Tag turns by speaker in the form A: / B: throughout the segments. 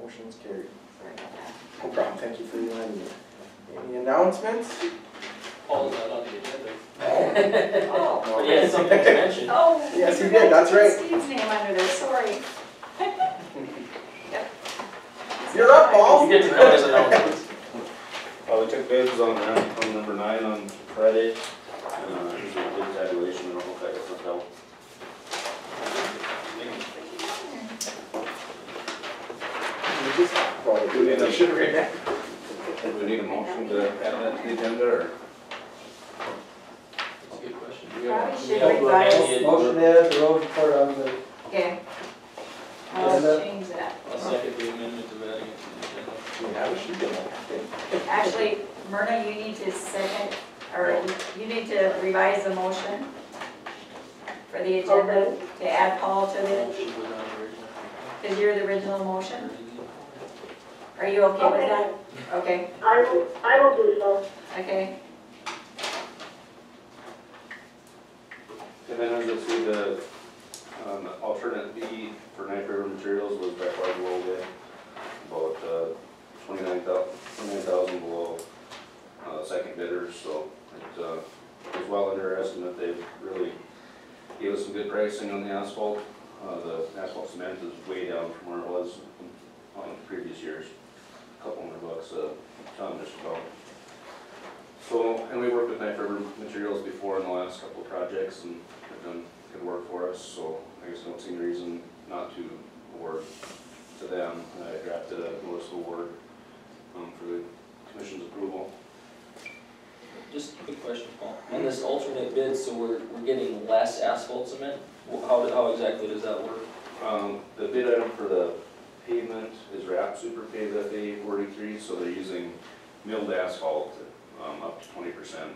A: Motion's carried.
B: Sorry about that.
A: No problem, thank you for reminding me. Any announcements?
C: Paul's not on the agenda.
A: No.
B: Oh,
C: But he has something to mention.
B: oh. we
A: Yes, you
B: forgot
A: did, that's
B: to put
A: right.
B: Steve's name under there, sorry. Yep.
A: You're up, Paul.
C: You get to know his announcements.
D: Uh, we took bids on that, on number nine on Friday, uh, here's a bid tabulation, I don't know if that got sent out.
A: We just brought it, we should have read that.
D: Do we need a motion to add that to the agenda, or?
C: That's a good question.
B: Probably
C: We
B: should
C: have
B: revise.
C: Randy and-
E: Motion to add the road report on the,
B: Okay. I'll change that.
C: I'll second the amendment to adding it to the agenda.
A: Yeah, we should get that.
B: Actually, Myrna, you need to second, or you need to revise the motion for the agenda to add Paul to the,
C: Motion was on the original.
B: because you're the original motion. Are you okay with that? Okay,
F: I will, I will do so.
B: okay.
D: And then as you'll see, the, um, alternate B for Knife River Materials was by far below bid, about, uh, twenty-nine thou, twenty-nine thousand below, uh, second bidder, so it, uh, was well under our estimate, they really gave us some good pricing on the asphalt, uh, the asphalt cement is way down from where it was on previous years, a couple hundred bucks a ton just about. So, and we worked with Knife River Materials before in the last couple of projects and have done good work for us, so I guess I don't see any reason not to award to them. I drafted a notice of award, um, for the commission's approval.
C: Just a quick question, Paul. On this alternate bid, so we're, we're getting less asphalt cement? Wh- How, how exactly does that work?
D: Um, the bid item for the pavement is wrap super paved FA forty-three, so they're using milled asphalt, um, up to twenty percent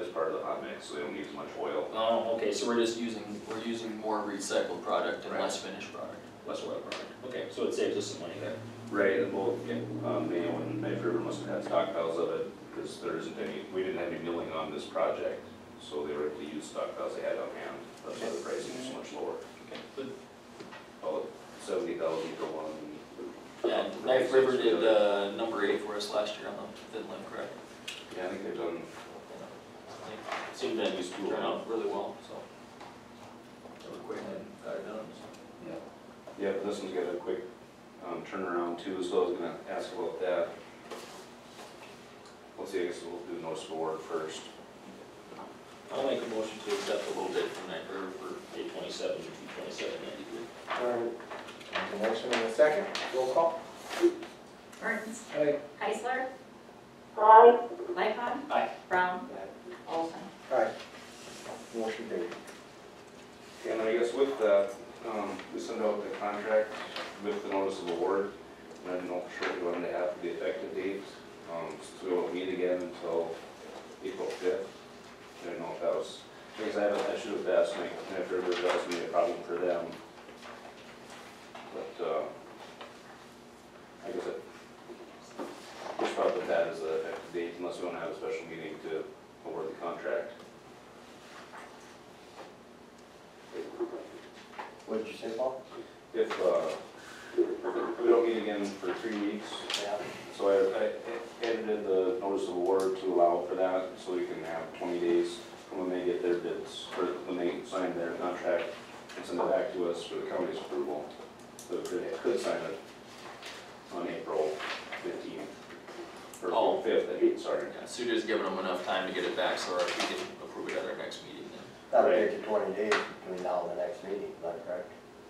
D: as part of the hot mix, so they don't need as much oil.
C: Oh, okay, so we're just using, we're using more recycled product and
D: Right.
C: less finished product, less oil product. Okay, so it saves us some money there.
D: Right, and both, um, Mayo and Knife River must have had stockpiles of it, because there isn't any, we didn't have any milling on this project, so they were able to use stockpiles they had on hand, that's why the pricing is so much lower.
C: Okay, good.
D: About seventy thousand for one.
C: And Knife River did, uh, number eight for us last year on the thin line, correct?
D: Yeah, I think they've done,
C: They Seemed to
D: Use tool.
C: turn uh, out really well, so. They were quick and got it done, so.
D: yeah, but this one's got a quick, um, turnaround too, so I was gonna ask about that. Let's see, I guess we'll do notice of award first.
C: I'll make a motion to accept a little bit from Knife River for eight twenty-seven, two twenty-seven ninety-three.
A: All right. There's a Motion in a second, roll call.
B: Mertens,
E: I,
B: Heisler,
F: Aye.
B: Lightcon.
C: Aye.
B: Brown. Olson.
A: Aye. Motion carried.
D: And I guess with that, um, we send out the contract with the notice of award, and I didn't know for sure if we wanted to have the effective date, um, so we won't meet again until April fifth. I didn't know if that was, because I haven't, I should have asked, like, if there was gonna be a problem for them. But, uh, I guess I, just thought that that is the effective date, unless we wanna have a special meeting to award the contract.
A: What did you say, Paul?
D: If, uh, if we don't meet again for three weeks,
A: Yeah.
D: so I, I edited the notice of award to allow for that, so we can have twenty days from when they get their bids, or when they sign their contract, and send it back to us for the county's approval. So we could, could sign it on April fifteenth,
C: Oh.
D: or fifth, I mean, sorry.
C: Yeah, so you're just giving them enough time to get it back, so we can approve it at our next meeting then.
G: That'll
D: Right.
G: take you twenty days between now and the next meeting, is that correct?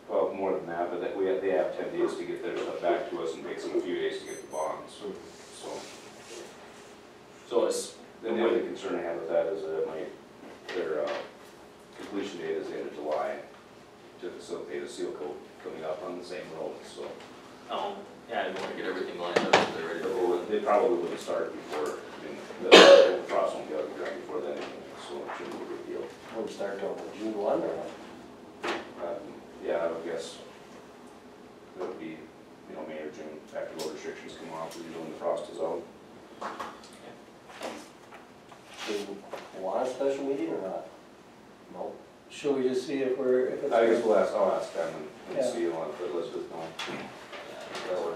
D: Well, more than that, but that we have, they have ten days to get their stuff back to us, and takes them a few days to get the bonds, so.
C: So it's,
D: Then the only concern I have with that is that it might, their uh, completion date is the end of July to facilitate a seal coat coming up on the same road, so.
C: um, yeah, I want to get everything lined up, so they're ready to roll.
D: They probably wouldn't start before, I mean, the frost won't be out of the ground before then, anyway, so it shouldn't be a big deal.
G: Wouldn't start till June one or what?
D: Um, Yeah, I would guess it would be, you know, May or June, after road restrictions come off, usually when the frost is out.
G: Do you want a special meeting or not? No.
E: should we just see if we're, if it's.
D: I guess we'll ask, I'll ask them and-
E: Yeah.
D: and see, I'll let Elizabeth know.
C: Yeah,
D: That'll work.